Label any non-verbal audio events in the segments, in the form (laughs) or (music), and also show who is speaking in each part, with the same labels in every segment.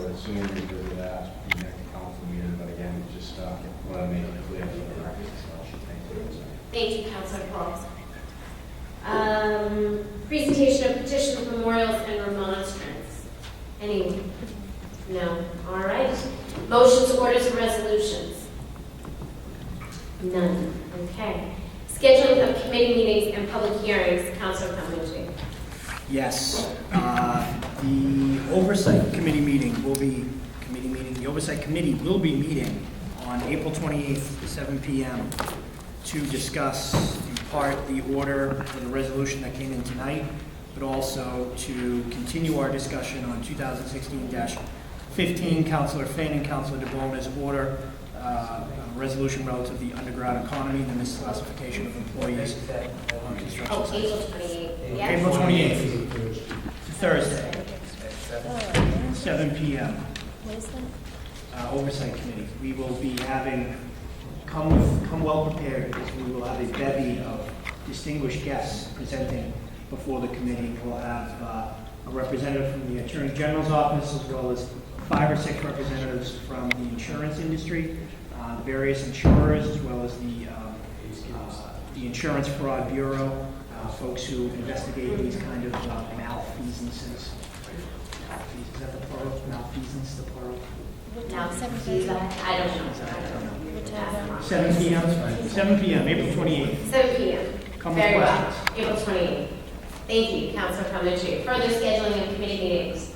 Speaker 1: sooner we do that, the next council meeting, but again, it's just, uh, want to make it clear for the record, so, thank you.
Speaker 2: Thank you, Councilor Paul. Um, Presentation of petitions, memorials, and remonstrance. Any? No. All right. Motions, orders, and resolutions? None. Okay. Scheduling of committee meetings and public hearings, Councilor Calhoun.
Speaker 3: Yes, uh, the Oversight Committee meeting will be, committee meeting, the Oversight Committee will be meeting on April 28th, at 7 PM, to discuss in part the order for the resolution that came in tonight, but also to continue our discussion on 2016-15, Counselor Finn and Counselor DeBona's order, uh, a resolution relative to the underground economy and the misclassification of employees on construction
Speaker 2: Oh,
Speaker 3: sites.
Speaker 2: April 28th. Yes?
Speaker 3: April 28th, Thursday. 7 PM,
Speaker 4: What is that?
Speaker 3: uh, Oversight Committee. We will be having, come, with- come well prepared, because we will have a bevy of distinguished guests presenting before the committee. We'll have uh, a representative from the Attorney General's Office, as well as five or six representatives from the insurance industry, uh, various insurers, as well as the, um, uh, the Insurance Fraud Bureau, uh, folks who investigate these kind of uh, malfeasances. Malfeas- Is that the plural? Malfeasance, the plural?
Speaker 4: What
Speaker 2: No.
Speaker 4: time is that?
Speaker 2: I don't know. That's not-
Speaker 3: 7 PM, 7 PM, April 28th.
Speaker 2: 7 PM.
Speaker 3: Comments,
Speaker 2: Very well.
Speaker 3: questions?
Speaker 2: April 28th. Thank you, Councilor Calhoun. Further scheduling of committee meetings?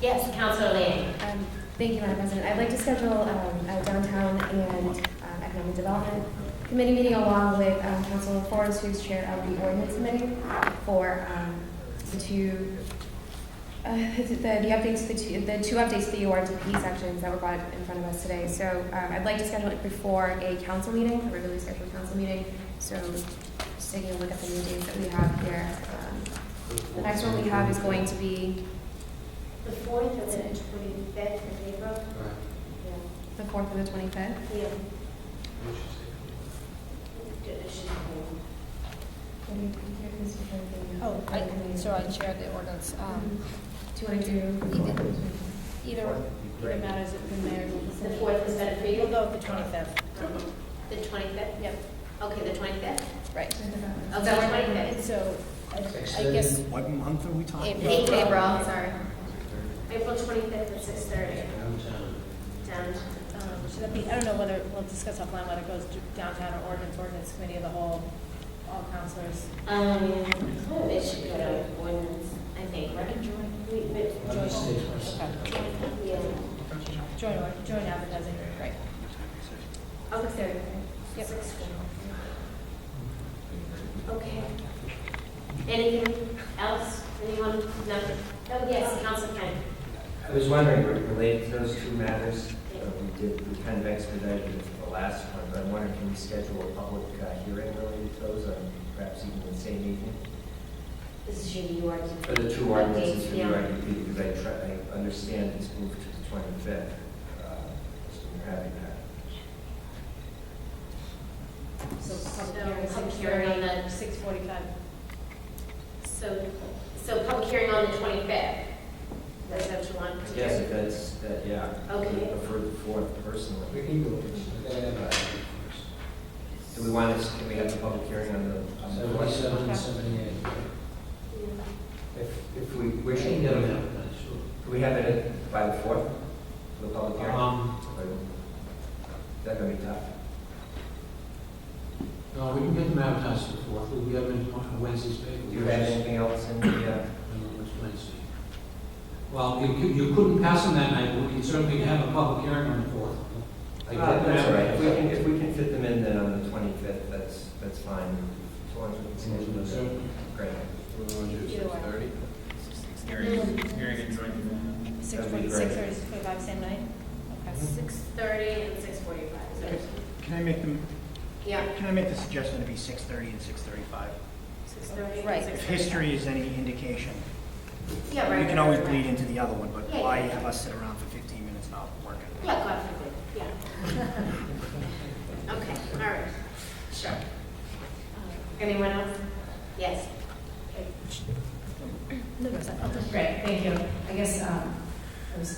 Speaker 2: Yes, Councilor Lang.
Speaker 5: Um, Thank you, Madam President. I'd like to schedule um, a downtown and um, economic development committee meeting along with um, Councilor Forrest, who's chair of the ordinance committee, for um, the two, uh, the the updates, the two, the two updates to the URTP sections that were brought in front of us today. So um, I'd like to schedule it before a council meeting, a regularly scheduled council meeting. So just taking a look at the new dates that we have here. Um, The next one we have is going to be
Speaker 2: The 4th and the 25th of April?
Speaker 5: the 4th and the 25th.
Speaker 2: Yeah.
Speaker 4: Oh, I, so I chair the ordinance. Um,
Speaker 5: Do you want to do?
Speaker 4: either- Either, it matters if the mayor.
Speaker 2: The 4th is better for
Speaker 4: We'll
Speaker 2: you?
Speaker 4: go with the twenty-fifth.
Speaker 2: The 25th?
Speaker 4: Yep,
Speaker 2: Okay, the 25th?
Speaker 4: right.
Speaker 5: Oh,
Speaker 2: Okay, the 25th.
Speaker 4: And so, I I guess,
Speaker 3: What month are we talking?
Speaker 4: April,
Speaker 2: April.
Speaker 4: April, sorry.
Speaker 2: April 25th at 6:30. Down.
Speaker 4: Um, Should that be, I don't know whether, we'll discuss offline whether it goes to downtown or ordinance, ordinance committee of the whole, all councilors.
Speaker 2: Um, it should go to ordinance, I think, right? We- we-
Speaker 4: Joint, okay.
Speaker 2: Yeah.
Speaker 4: joint, or- joint advertising, right.
Speaker 2: Okay.
Speaker 4: Yep.
Speaker 2: Okay. Anything else? Anyone? Nothing? Oh, yes, Council Kent.
Speaker 6: I was wondering, re- related to those two matters, uh, we did, we kind of expedited it for the last one, but I'm wondering, can we schedule a public uh, hearing related to those, or perhaps even the same evening?
Speaker 2: This is your New York.
Speaker 6: For the two ordinances, for
Speaker 2: Yeah.
Speaker 6: your IDP, because I try, I understand it's moved to the twenty-fifth, uh, so we're having that.
Speaker 4: So
Speaker 2: So,
Speaker 4: public
Speaker 2: public
Speaker 4: hearing
Speaker 2: hearing on the-
Speaker 4: Six forty-five.
Speaker 2: So, so public hearing on the 25th? That's what you want? to do?
Speaker 6: Yes, if that's, that, yeah.
Speaker 2: Okay.
Speaker 6: I prefer the fourth personally. Do we
Speaker 2: Yeah.
Speaker 6: want to, can we have the public hearing on the? on the fourth? If, if we wish. Can we have it at- by the fourth, for the public hearing?
Speaker 7: Um,
Speaker 6: Or- Is that gonna be tough?
Speaker 7: no, we can get them advertised for the fourth, we have it on Wednesday's paper.
Speaker 6: Do you have anything else in the, uh,
Speaker 7: It's Wednesday. Well, you could, you couldn't pass them that night, but we can certainly have a public hearing on the fourth. Like,
Speaker 6: uh, that's all right, if we can,
Speaker 7: We
Speaker 6: if we can fit them in then on the twenty-fifth, that's, that's fine. As long as we
Speaker 7: can
Speaker 6: can
Speaker 7: do
Speaker 6: schedule it.
Speaker 7: so.
Speaker 6: Great.
Speaker 4: Either way. Six
Speaker 6: That'd be
Speaker 4: forty,
Speaker 6: great.
Speaker 4: six thirty, six forty-five, same night? Okay.
Speaker 2: 6:30 and 6:45, so,
Speaker 3: Can I make them,
Speaker 2: yeah,
Speaker 3: can I make the suggestion to be 6:30 and 6:35?
Speaker 2: 6:30 and
Speaker 4: Right.
Speaker 2: 6:45.
Speaker 3: If history is any indication,
Speaker 2: Yeah, right.
Speaker 3: we can always
Speaker 2: right,
Speaker 3: bleed
Speaker 2: right.
Speaker 3: into the other one, but
Speaker 2: Yeah,
Speaker 3: why
Speaker 2: yeah.
Speaker 3: have us sit around for 15 minutes not working?
Speaker 2: Yeah, God forbid, yeah. (laughs) Okay, all right, sure. Anyone else? Yes.
Speaker 4: No, it's not.
Speaker 8: Great, thank you. I guess um,